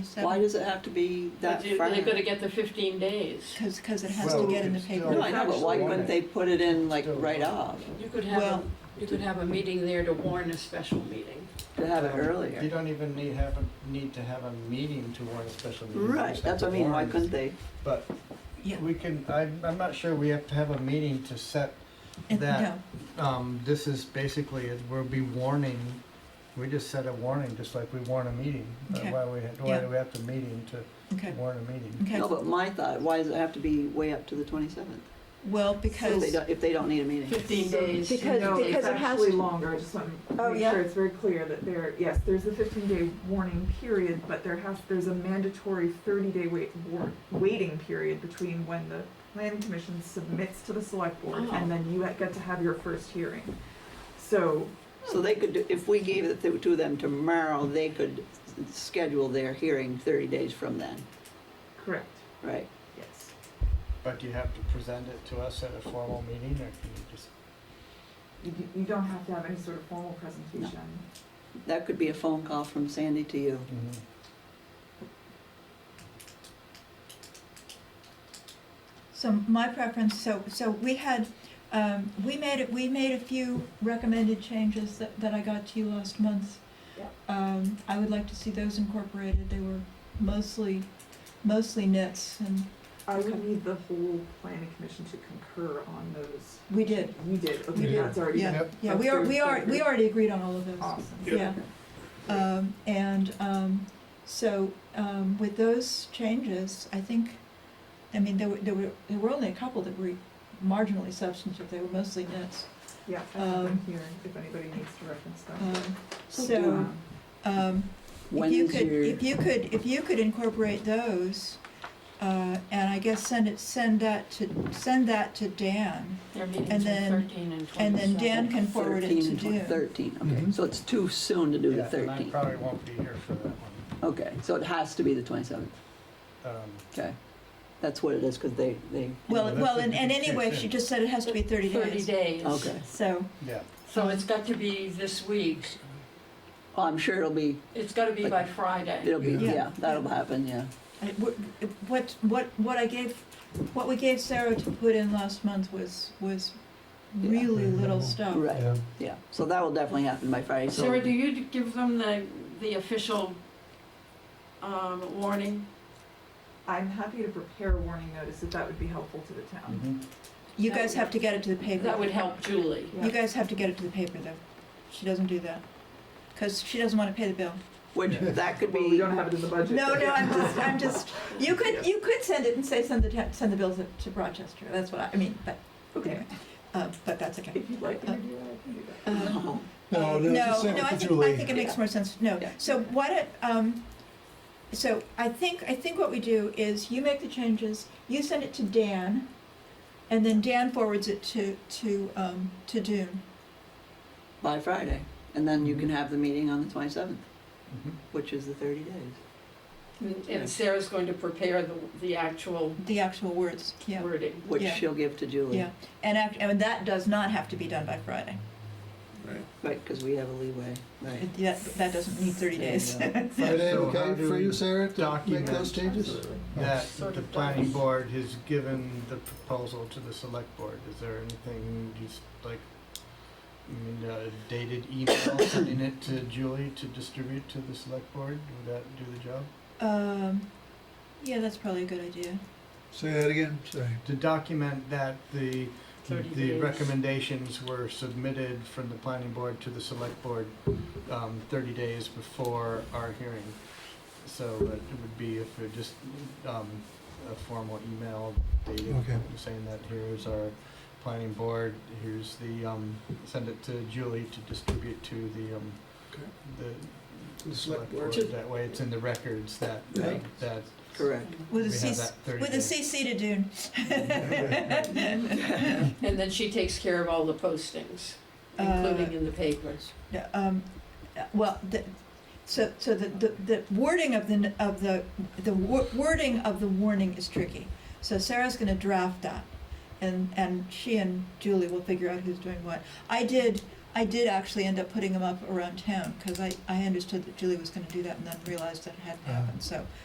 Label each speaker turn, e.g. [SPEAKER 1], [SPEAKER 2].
[SPEAKER 1] Why does it have to be that
[SPEAKER 2] But you-
[SPEAKER 1] far?
[SPEAKER 2] They're gonna get the fifteen days.
[SPEAKER 3] Because, because it has to
[SPEAKER 4] Well,
[SPEAKER 3] get in the
[SPEAKER 4] it's still-
[SPEAKER 3] paper.
[SPEAKER 1] No, I know, but why couldn't they put it in like
[SPEAKER 4] Still.
[SPEAKER 1] right off,
[SPEAKER 2] You could have,
[SPEAKER 3] Well-
[SPEAKER 2] a- you could have a meeting there to warn a special meeting.
[SPEAKER 1] to have it
[SPEAKER 4] Um, You
[SPEAKER 1] earlier?
[SPEAKER 4] don't even need have a, need to have a meeting to warn a special meeting. You
[SPEAKER 1] Right,
[SPEAKER 4] just
[SPEAKER 1] that's
[SPEAKER 4] have
[SPEAKER 1] what I mean,
[SPEAKER 4] to
[SPEAKER 1] why
[SPEAKER 4] warn it.
[SPEAKER 1] couldn't they?
[SPEAKER 4] But
[SPEAKER 3] Yeah.
[SPEAKER 4] we can, I, I'm not sure we have to have a meeting to set
[SPEAKER 3] And-
[SPEAKER 4] that.
[SPEAKER 3] no.
[SPEAKER 4] Um, this is basically, it- we'll be warning, we just set a warning, just like we warn a meeting. Uh,
[SPEAKER 3] Okay.
[SPEAKER 4] Why we, had- why
[SPEAKER 3] Yeah.
[SPEAKER 4] do we have to meeting to
[SPEAKER 3] Okay,
[SPEAKER 4] warn a meeting?
[SPEAKER 3] okay.
[SPEAKER 1] No, but my thought, why does it have to be way up to the twenty-seventh?
[SPEAKER 3] Well,
[SPEAKER 1] If they
[SPEAKER 3] because,
[SPEAKER 1] don't, if they don't need a meeting.
[SPEAKER 2] Fifteen days.
[SPEAKER 5] Because-
[SPEAKER 6] No,
[SPEAKER 5] because
[SPEAKER 6] it's
[SPEAKER 5] it has
[SPEAKER 6] actually
[SPEAKER 5] to-
[SPEAKER 6] longer, I just want
[SPEAKER 5] Oh,
[SPEAKER 6] to make
[SPEAKER 5] yeah.
[SPEAKER 6] sure it's very clear that there, yes, there's a fifteen day warning period, but there has, there's a mandatory thirty day wait, war, waiting period between when the plan commission submits to the select board
[SPEAKER 2] Oh.
[SPEAKER 6] and then you get to have your first hearing. So,
[SPEAKER 1] So they could, do if we gave it to to them tomorrow, they could s- schedule their hearing thirty days from then,
[SPEAKER 6] correct,
[SPEAKER 1] right?
[SPEAKER 6] yes.
[SPEAKER 4] But do you have to present it to us at a formal meeting, or can you just?
[SPEAKER 6] You, d- you don't have to have any sort of formal presentation.
[SPEAKER 1] That could be a phone call from Sandy to you.
[SPEAKER 3] so my preference, so, so we had, um, we made, it. we made a few recommended changes that, that I got to you last month.
[SPEAKER 6] Yeah.
[SPEAKER 3] Um, I would like to see those incorporated. They were mostly, mostly nits and
[SPEAKER 6] I would
[SPEAKER 3] Okay.
[SPEAKER 6] need the whole planning commission to concur on those.
[SPEAKER 3] we did.
[SPEAKER 6] We did,
[SPEAKER 3] We
[SPEAKER 6] okay,
[SPEAKER 3] did,
[SPEAKER 6] that's already.
[SPEAKER 3] Yeah,
[SPEAKER 4] Yep.
[SPEAKER 3] yeah, we are, we are, we already agreed on all of those.
[SPEAKER 4] Ah,
[SPEAKER 6] Awesome.
[SPEAKER 3] Yeah. Um, and, um, so, um, with those changes, I think, I mean, there were, there were, there were only a couple that were marginally substantive, they were mostly nits.
[SPEAKER 6] Yeah, I have
[SPEAKER 3] Um,
[SPEAKER 6] them here, if anybody needs to reference them.
[SPEAKER 3] Um,
[SPEAKER 1] do
[SPEAKER 3] so, um, if
[SPEAKER 1] When
[SPEAKER 3] you
[SPEAKER 1] is
[SPEAKER 3] could,
[SPEAKER 1] your-
[SPEAKER 3] if you could, if you could incorporate those, uh, and I guess send it, send that to, send that to Dan,
[SPEAKER 2] Their
[SPEAKER 3] and
[SPEAKER 2] meetings are
[SPEAKER 3] then-
[SPEAKER 2] thirteen and
[SPEAKER 3] and then
[SPEAKER 2] twenty-seven.
[SPEAKER 3] Dan can forward it
[SPEAKER 1] 13
[SPEAKER 3] to
[SPEAKER 1] and 20
[SPEAKER 3] June.
[SPEAKER 1] Thirteen, okay,
[SPEAKER 4] Mhm.
[SPEAKER 1] so it's too soon to do the
[SPEAKER 4] Yeah, and I
[SPEAKER 1] thirteen.
[SPEAKER 4] probably won't be here for that one.
[SPEAKER 1] Okay, so it has to be the twenty-seventh,
[SPEAKER 4] Um,
[SPEAKER 1] okay. That's what it is, because they, they,
[SPEAKER 3] Well,
[SPEAKER 4] Yeah, that's
[SPEAKER 3] well,
[SPEAKER 4] what
[SPEAKER 3] and,
[SPEAKER 4] you
[SPEAKER 3] and
[SPEAKER 4] can
[SPEAKER 3] anyway,
[SPEAKER 4] check
[SPEAKER 3] she
[SPEAKER 4] in.
[SPEAKER 3] just said it has to be thirty days.
[SPEAKER 2] Thirty days.
[SPEAKER 1] okay.
[SPEAKER 3] So,
[SPEAKER 4] Yeah,
[SPEAKER 2] So it's got to be this week.
[SPEAKER 1] Well, I'm sure it'll be,
[SPEAKER 2] It's gotta be by Friday.
[SPEAKER 1] it'll be,
[SPEAKER 4] Yeah.
[SPEAKER 1] yeah, that'll happen, yeah.
[SPEAKER 3] I- what- What, what, what I gave, what we gave Sarah to put in last month was, was
[SPEAKER 1] Yeah.
[SPEAKER 3] really little stuff.
[SPEAKER 1] Right, yeah. So that will definitely happen by Friday, so.
[SPEAKER 2] Sarah, do you d- give them the, the official, um, warning?
[SPEAKER 6] I'm happy to prepare a warning notice if that would be helpful to the town.
[SPEAKER 4] Mhm.
[SPEAKER 3] You guys have to get it to the paper.
[SPEAKER 2] That would help Julie.
[SPEAKER 3] You guys have to get it to the paper, though. She doesn't do that, because she doesn't want to pay the bill.
[SPEAKER 1] Which, that could
[SPEAKER 6] Well, we
[SPEAKER 1] be,
[SPEAKER 6] don't have it in the budget.
[SPEAKER 3] No,
[SPEAKER 6] but-
[SPEAKER 3] no, I'm just, I'm just, you could, you could send it and say, send the, ta- send the bill to- to Rochester, that's what I, I mean, but,
[SPEAKER 6] Okay,
[SPEAKER 3] anyway, uh, but that's okay.
[SPEAKER 6] if you'd like
[SPEAKER 3] Uh,
[SPEAKER 6] me to do that, I can do that.
[SPEAKER 3] Um,
[SPEAKER 7] No,
[SPEAKER 3] Uh,
[SPEAKER 7] Oh, no, just
[SPEAKER 3] no,
[SPEAKER 7] send it
[SPEAKER 3] no, I
[SPEAKER 7] to
[SPEAKER 3] think, I
[SPEAKER 7] Julie.
[SPEAKER 3] think it makes more sense, no.
[SPEAKER 1] Yeah.
[SPEAKER 3] So why don't, um, so I think, I think what we do is you make the changes, you send it to Dan, and then Dan forwards it to, to, um, to Dune.
[SPEAKER 1] by Friday. And then you can have the meeting on the twenty-seventh,
[SPEAKER 4] Mhm.
[SPEAKER 1] which is the thirty days.
[SPEAKER 2] And Sarah's going to prepare the, the actual
[SPEAKER 3] the actual words, yeah,
[SPEAKER 2] wording.
[SPEAKER 1] Which
[SPEAKER 3] Yeah.
[SPEAKER 1] she'll give to Julie,
[SPEAKER 3] yeah. And act, and that does not have to be done by Friday.
[SPEAKER 1] right, because we have a leeway, right?
[SPEAKER 3] It- That, that doesn't need thirty days.
[SPEAKER 1] There you go.
[SPEAKER 7] Friday,
[SPEAKER 4] So how
[SPEAKER 7] okay
[SPEAKER 4] do
[SPEAKER 7] for
[SPEAKER 4] we
[SPEAKER 7] you, Sarah, to make
[SPEAKER 4] document-
[SPEAKER 7] those changes?
[SPEAKER 6] Absolutely.
[SPEAKER 4] That
[SPEAKER 2] Sort
[SPEAKER 4] the
[SPEAKER 2] of
[SPEAKER 4] planning
[SPEAKER 2] does.
[SPEAKER 4] board has given the proposal to the select board. Is there anything you s like, I mean, uh, dated email, sending it to Julie to distribute to the select board? Would that do the job?
[SPEAKER 3] Um, yeah, that's probably a good idea.
[SPEAKER 7] Say that again, sorry.
[SPEAKER 4] To document that the,
[SPEAKER 2] 30
[SPEAKER 4] the
[SPEAKER 2] days.
[SPEAKER 4] recommendations were submitted from the planning board to the select board um, thirty days before our hearing. So it would be if it just, um, a formal email dated,
[SPEAKER 7] Okay.
[SPEAKER 4] saying that here's our planning board, here's the, um, send it to Julie to distribute to the, um,
[SPEAKER 7] Okay.
[SPEAKER 4] the.
[SPEAKER 7] The select board.
[SPEAKER 4] That way it's in the records that,
[SPEAKER 7] Yeah.
[SPEAKER 4] that
[SPEAKER 1] Correct.
[SPEAKER 4] we
[SPEAKER 3] With a
[SPEAKER 4] have
[SPEAKER 3] C,
[SPEAKER 4] that thirty days.
[SPEAKER 3] with a CC to Dune.
[SPEAKER 2] And then she takes care of all the postings,
[SPEAKER 3] Uh,
[SPEAKER 2] including in the papers.
[SPEAKER 3] No, um, well, the, so, so the, the, the wording of the, of the, the wo- wording of the warning is tricky. So Sarah's gonna draft that, and, and she and Julie will figure out who's doing what. I did, I did actually end up putting them up around town, because I, I understood that Julie was gonna do that and then realized that it hadn't
[SPEAKER 7] Ah.
[SPEAKER 3] happened, so